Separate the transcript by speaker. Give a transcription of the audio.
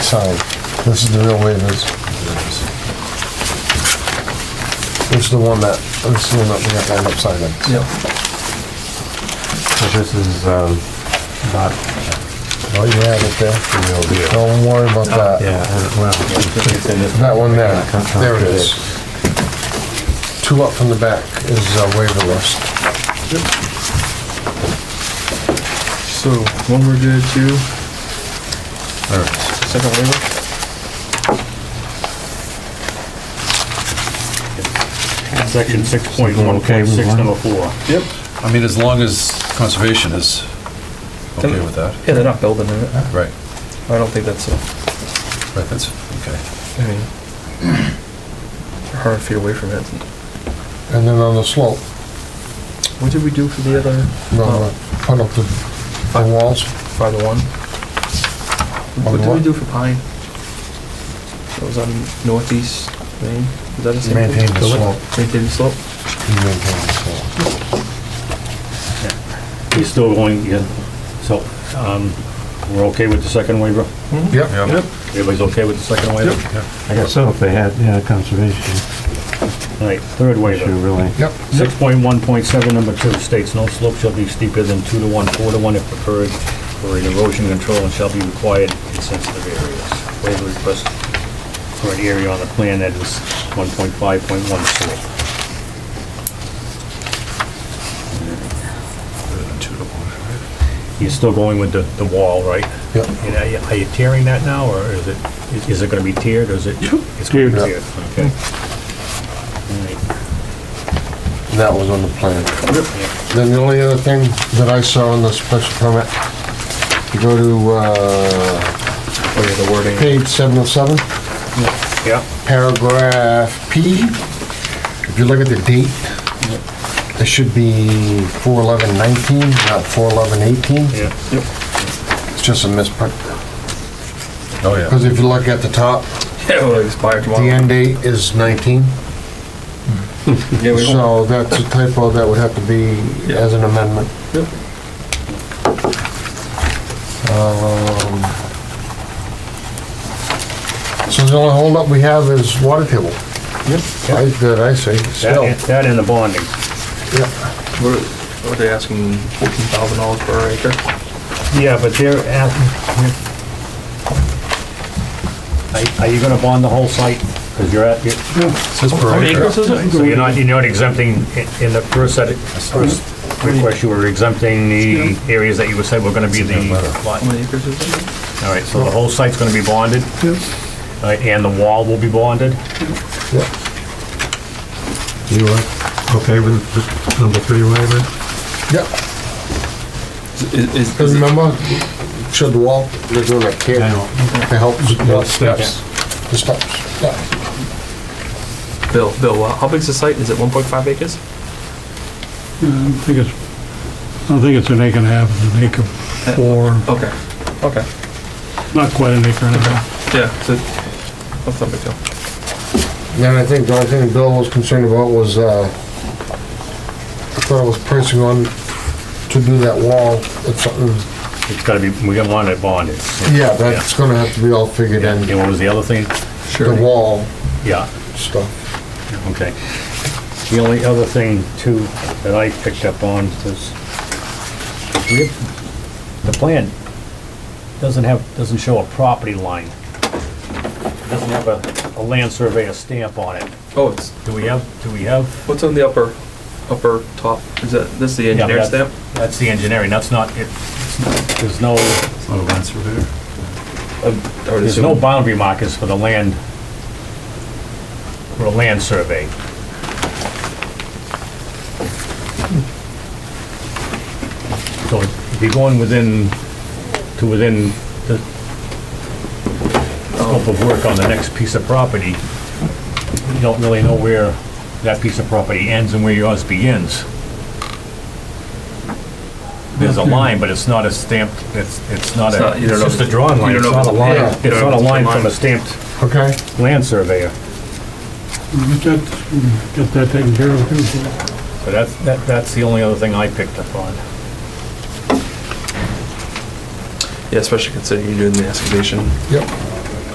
Speaker 1: signed. This is the real waivers. This is the one that, this is the one that we have to end up signing.
Speaker 2: Yep.
Speaker 3: So this is, um, not,
Speaker 1: Oh, you have it there.
Speaker 3: Real deal.
Speaker 1: Don't worry about Oh, that.
Speaker 3: yeah, uh, well,
Speaker 1: That one there, there it is. Two up from the back is uh, waiver list.
Speaker 2: So, one we're good, two, second waiver?
Speaker 4: Section six point one
Speaker 3: Okay,
Speaker 4: point
Speaker 3: we
Speaker 4: six,
Speaker 3: want-
Speaker 4: number four.
Speaker 2: Yep.
Speaker 5: I mean, as long as conservation is okay with that,
Speaker 2: Yeah, they're not building in it.
Speaker 5: right,
Speaker 2: I don't think that's a,
Speaker 5: right, that's, okay.
Speaker 2: I mean, hard feet away from it.
Speaker 1: And then on the slope,
Speaker 2: What did we do for the other?
Speaker 1: we're
Speaker 2: Oh,
Speaker 1: gonna put up the the walls.
Speaker 2: Five to one?
Speaker 1: On
Speaker 2: What
Speaker 1: the
Speaker 2: did we
Speaker 1: what?
Speaker 2: do for pine? That was on northeast Maine, is that the same? thing?
Speaker 1: Maintain the slope.
Speaker 2: Maintain the slope?
Speaker 1: You maintain the slope.
Speaker 4: He's still going, yeah, so, um, we're okay with the second waiver?
Speaker 2: Mm-hmm.
Speaker 1: Yep.
Speaker 5: Yep.
Speaker 4: Everybody's okay with the second waiver?
Speaker 3: I guess so, if they had, yeah, conservation
Speaker 4: All right, third
Speaker 3: issue,
Speaker 4: waiver.
Speaker 3: really.
Speaker 1: Yep.
Speaker 4: Six point one point seven, number two, states no slope shall be steeper than two to one, four to one if preferred, for an erosion control and shall be required in sensitive areas. Waiver request for an area on the plan that is one point five point one slope. You're still going with the, the wall, right?
Speaker 1: Yep.
Speaker 4: And are you- are you tearing that now, or is it, is- is it gonna be tiered, or is it? It's gonna be
Speaker 3: Tiered.
Speaker 4: tiered, okay. All right.
Speaker 1: That was on the plan. Then the only other thing that I saw in the special permit, you go to, uh,
Speaker 2: Oh, yeah, the wording.
Speaker 1: page seven oh seven,
Speaker 4: Yeah,
Speaker 1: paragraph P. If you look at the date, it should be four eleven nineteen, not four eleven eighteen.
Speaker 4: yeah.
Speaker 1: It's just a misprint.
Speaker 5: Oh, yeah.
Speaker 1: Because if you look at the top,
Speaker 2: Yeah, it'll expire
Speaker 1: the
Speaker 2: tomorrow.
Speaker 1: end date is nineteen.
Speaker 2: Yeah, we won't.
Speaker 1: So that's a typo that would have to be as an amendment.
Speaker 2: Yep.
Speaker 1: Um, So the only holdup we have is water table,
Speaker 4: Yeah.
Speaker 1: I- that I see, still.
Speaker 4: That, that and the bonding.
Speaker 1: Yeah.
Speaker 2: We're, what are they asking, fourteen thousand dollars per acre?
Speaker 4: Yeah, but they're at, are, are you gonna bond the whole site? Cause you're at, you're-
Speaker 5: Says per acre.
Speaker 4: so you're not, you're not exempting, in- in the first set, first request, you were exempting the areas that you said were gonna be the lot.
Speaker 2: How many acres is it?
Speaker 4: All right, so the whole site's gonna be bonded? All right, and the wall will be bonded?
Speaker 3: You are okay with the number three waiver?
Speaker 1: Yep.
Speaker 2: Is, is,
Speaker 1: Because remember, should the wall, they're doing a care
Speaker 3: Yeah.
Speaker 1: to help.
Speaker 3: The steps.
Speaker 1: The steps, yeah.
Speaker 2: Bill, Bill, uh, how big's the site? Is it one point five acres?
Speaker 6: I don't think it's, I don't think it's an acre and a half, it's an acre four,
Speaker 2: Okay, okay,
Speaker 6: not quite an acre and a half.
Speaker 2: yeah, so, that's not a big deal.
Speaker 1: Then I think the only thing Bill was concerned about was, uh, I thought it was pricing on to do that wall, it's something,
Speaker 4: It's gotta be, we gotta want it bonded.
Speaker 1: yeah, that's gonna have to be all figured in,
Speaker 4: And what was the other thing?
Speaker 1: the wall
Speaker 4: Yeah.
Speaker 1: stuff.
Speaker 4: Okay. The only other thing too that I picked up on is we have- the plan doesn't have, doesn't show a property line. Doesn't have a, a land surveyor stamp on it.
Speaker 2: Oh, it's,
Speaker 4: Do we have, do we have?
Speaker 2: what's on the upper, upper top? Is that, this is the
Speaker 4: Yeah, but
Speaker 2: engineer stamp?
Speaker 4: that's- That's the engineering, that's not, it- it's not- there's no,
Speaker 3: Oh, that's right.
Speaker 2: I would
Speaker 4: there's no
Speaker 2: assume.
Speaker 4: boundary markers for the land, for a land survey. So if you're going within, to within the scope of work on the next piece of property, you don't really know where that piece of property ends and where yours begins. There's a line, but it's not a stamped, it's, it's not
Speaker 2: It's
Speaker 4: a,
Speaker 2: not- you
Speaker 4: it's
Speaker 2: don't know
Speaker 4: just
Speaker 2: if
Speaker 4: a drawn
Speaker 2: you
Speaker 4: line,
Speaker 2: don't
Speaker 4: it's
Speaker 2: know if
Speaker 4: not a
Speaker 2: it's-
Speaker 4: line,
Speaker 2: yeah, you
Speaker 4: it's
Speaker 2: don't
Speaker 4: not
Speaker 2: know
Speaker 4: a
Speaker 2: if it's a
Speaker 4: line from
Speaker 2: line.
Speaker 4: a stamped
Speaker 1: Okay,
Speaker 4: land surveyor.
Speaker 6: We Get that, get that taken care of too.
Speaker 4: So that's, that, that's the only other thing I picked up on.
Speaker 2: Yeah, especially considering you're doing the excavation.
Speaker 1: yep,